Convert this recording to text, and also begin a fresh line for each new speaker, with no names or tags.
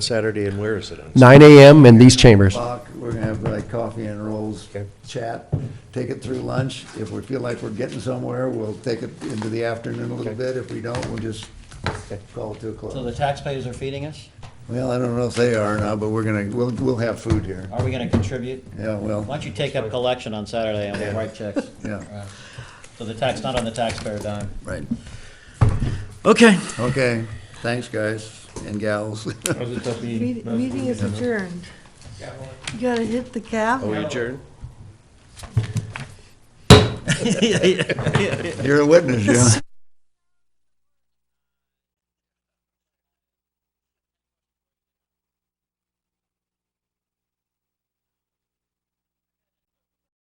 Saturday, and where is it on?
9 AM in these chambers.
o'clock, we're gonna have like coffee and rolls,
Okay.
chat, take it through lunch. If we feel like we're getting somewhere, we'll take it into the afternoon a little bit. If we don't, we'll just call it to a
So
close.
the taxpayers are feeding us?
Well, I don't know if they are now, but we're gonna, we'll, we'll have food here.
Are we gonna contribute?
Yeah,
Why
well,
don't you take up collection on Saturday and we'll write checks?
yeah,
So the tax, not on the taxpayer dime.
right.
Okay.
Okay, thanks, guys and gals.
Meet- Meeting is adjourned. You gotta hit the cap.
we adjourn?
You're a witness, yeah.